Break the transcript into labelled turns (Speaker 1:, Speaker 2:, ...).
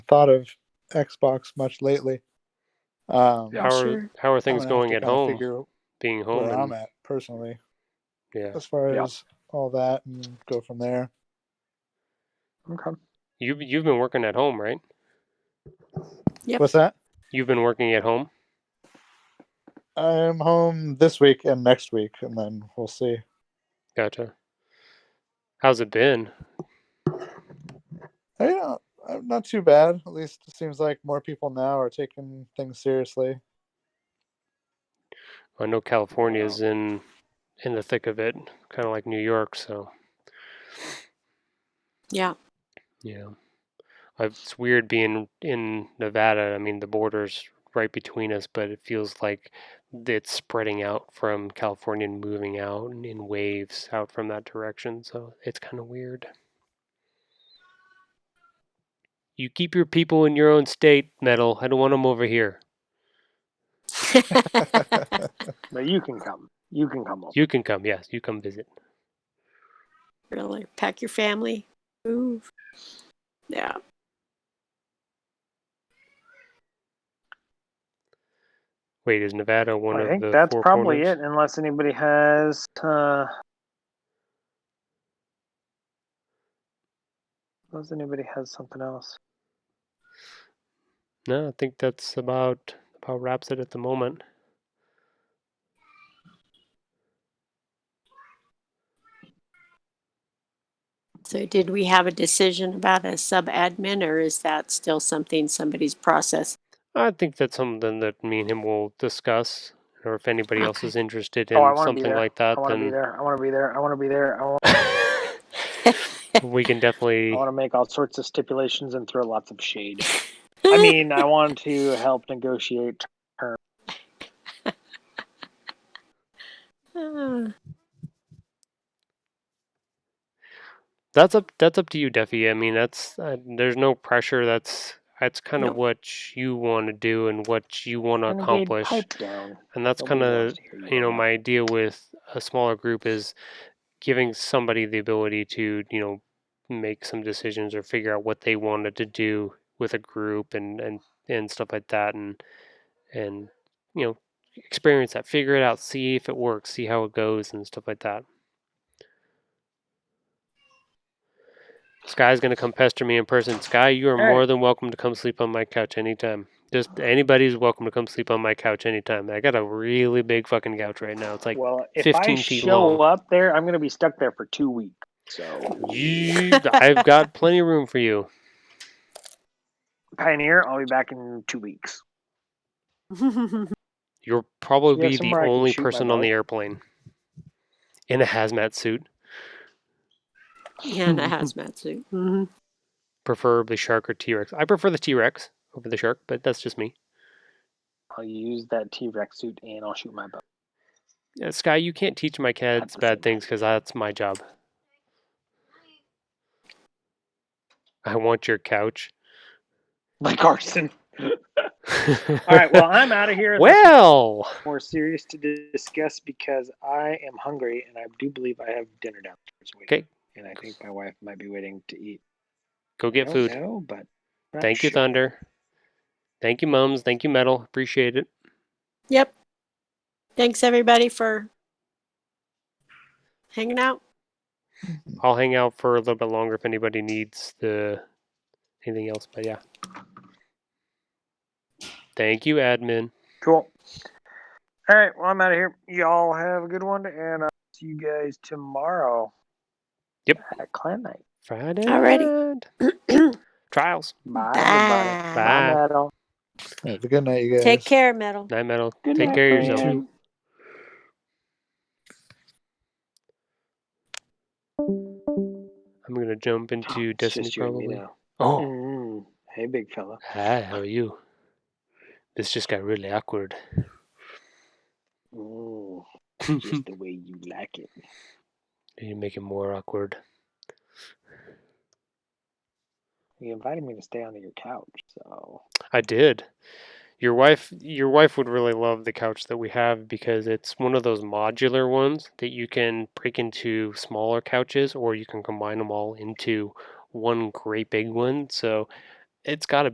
Speaker 1: thought of Xbox much lately. Um,
Speaker 2: Yeah,
Speaker 1: I'm
Speaker 2: how are
Speaker 1: sure
Speaker 2: how are things
Speaker 1: gonna have
Speaker 2: going
Speaker 1: to
Speaker 2: at
Speaker 1: kinda
Speaker 2: home?
Speaker 1: Figure
Speaker 2: Being home,
Speaker 1: where I'm
Speaker 2: and,
Speaker 1: at personally,
Speaker 2: yeah.
Speaker 1: as far
Speaker 2: Yeah.
Speaker 1: as all that, and go from there.
Speaker 2: Okay. You you've been working at home, right?
Speaker 3: Yep.
Speaker 1: What's that?
Speaker 2: You've been working at home.
Speaker 1: I'm home this week and next week, and then we'll see.
Speaker 2: Gotcha. How's it been?
Speaker 1: Hey, You know, uh, not too bad. At least it seems like more people now are taking things seriously.
Speaker 2: I know California's in in the thick of it, kind of like New York. So
Speaker 3: Yeah.
Speaker 2: yeah, I've, it's weird being in Nevada. I mean, the border's right between us, but it feels like it's spreading out from California and moving out in- in waves out from that direction. So it's kind of weird. You keep your people in your own state, metal. I don't want them over here.
Speaker 4: But you can come. You can come home.
Speaker 2: You can come, yes, you come visit.
Speaker 3: really. Pack your family. Move. Yeah.
Speaker 2: Wait, is Nevada one
Speaker 4: I
Speaker 2: of
Speaker 4: think
Speaker 2: the
Speaker 4: that's
Speaker 2: four
Speaker 4: probably
Speaker 2: corners?
Speaker 4: it, unless anybody has. Uh, unless anybody has something else.
Speaker 2: No, I think that's about about wraps it at the moment.
Speaker 3: So, did we have a decision about a sub admin, or is that still something somebody's process?
Speaker 2: I think that's something that me and him will discuss. Or if anybody else
Speaker 3: Okay.
Speaker 2: is interested in
Speaker 4: Oh, I wanna be
Speaker 2: something
Speaker 4: there.
Speaker 2: like that,
Speaker 4: I want to be
Speaker 2: then
Speaker 4: there. I want to be there. I want to be there. I want,
Speaker 2: we can
Speaker 4: I
Speaker 2: definitely.
Speaker 4: want to make all sorts of stipulations and throw lots of shade. I mean, I want to help negotiate.
Speaker 3: Ah,
Speaker 2: That's up. That's up to you, Duffy. I mean, that's uh, there's no pressure. That's that's kind of
Speaker 3: No.
Speaker 2: what you want to do and what you want to
Speaker 4: Renegade
Speaker 2: accomplish,
Speaker 4: Pipe down.
Speaker 2: and that's
Speaker 4: Nobody
Speaker 2: kind of
Speaker 4: wants to hear
Speaker 2: you know
Speaker 4: on
Speaker 2: my idea with a smaller group is giving somebody the ability to you know make some decisions or figure out what they wanted to do with a group and and and stuff like that and and you know experience that figure it out see if it works see how it goes and stuff like that sky's going to come pester me in person sky you are
Speaker 4: All right.
Speaker 2: more than welcome to come sleep on my couch anytime just anybody's welcome to come sleep on my couch anytime i got a really big fucking couch right now it's like
Speaker 4: well, if
Speaker 2: 15
Speaker 4: I
Speaker 2: feet
Speaker 4: show
Speaker 2: long.
Speaker 4: up there, I'm going to be stuck there for two weeks. So,
Speaker 2: "Yee, I've got plenty of room for you.
Speaker 4: Pioneer, I'll be back in two weeks.
Speaker 2: You'll probably
Speaker 4: Yeah,
Speaker 2: be the
Speaker 4: somewhere I can
Speaker 2: only
Speaker 4: shoot my
Speaker 2: person on the
Speaker 4: bow.
Speaker 2: airplane in a hazmat suit,
Speaker 3: and a hazmat suit. Mhm.
Speaker 2: preferably shark or T Rex. I prefer the T Rex over the shark, but that's just me.
Speaker 4: I'll use that T Rex suit and I'll shoot my bow.
Speaker 2: Yeah, Sky, you can't teach my kids bad
Speaker 4: percent.
Speaker 2: things because that's my job. I want your couch.
Speaker 4: Like Carson. All right, well, I'm out of here.
Speaker 2: well,
Speaker 4: more serious to di- discuss because I am hungry and I do believe I have dinner downstairs waiting.
Speaker 2: Okay.
Speaker 4: And I think my wife might be waiting to eat.
Speaker 2: go
Speaker 4: I
Speaker 2: get
Speaker 4: don't
Speaker 2: food.
Speaker 4: know, but not
Speaker 2: Thank you,
Speaker 4: sure.
Speaker 2: Thunder. Thank you, Mums. Thank you, Metal. Appreciate it.
Speaker 3: Yep. Thanks everybody for hanging out.
Speaker 2: I'll hang out for a little bit longer if anybody needs the anything else. But yeah. Thank you, admin.
Speaker 4: Cool. All right, well, I'm out of here. Y'all have a good one, and I'll see you guys tomorrow.
Speaker 2: Yep.
Speaker 4: At Clan Night.
Speaker 2: Friday.
Speaker 3: Alrighty.
Speaker 2: night. Trials.
Speaker 4: Bye, everybody.
Speaker 2: Bye.
Speaker 3: Bye.
Speaker 4: Bye, Metal.
Speaker 1: Have a good night, you guys.
Speaker 3: Take care, metal.
Speaker 2: Night metal.
Speaker 4: Good
Speaker 2: Take
Speaker 4: night,
Speaker 2: care of
Speaker 4: friends.
Speaker 2: yourself. I'm gonna jump into
Speaker 4: Oh, It's
Speaker 2: Destiny
Speaker 4: just you and me
Speaker 2: probably.
Speaker 4: now.
Speaker 2: Oh.
Speaker 4: Mm, hey, big fella.
Speaker 2: Hi, how are you? This just got really awkward.
Speaker 4: Mm,
Speaker 2: you
Speaker 4: just the way you like it.
Speaker 2: make it more awkward.
Speaker 4: You invited me to stay on your couch, so
Speaker 2: I did. Your wife your wife would really love the couch that we have because it's one of those modular ones that you can break into smaller couches or you can combine them all into one great big one. So it's got a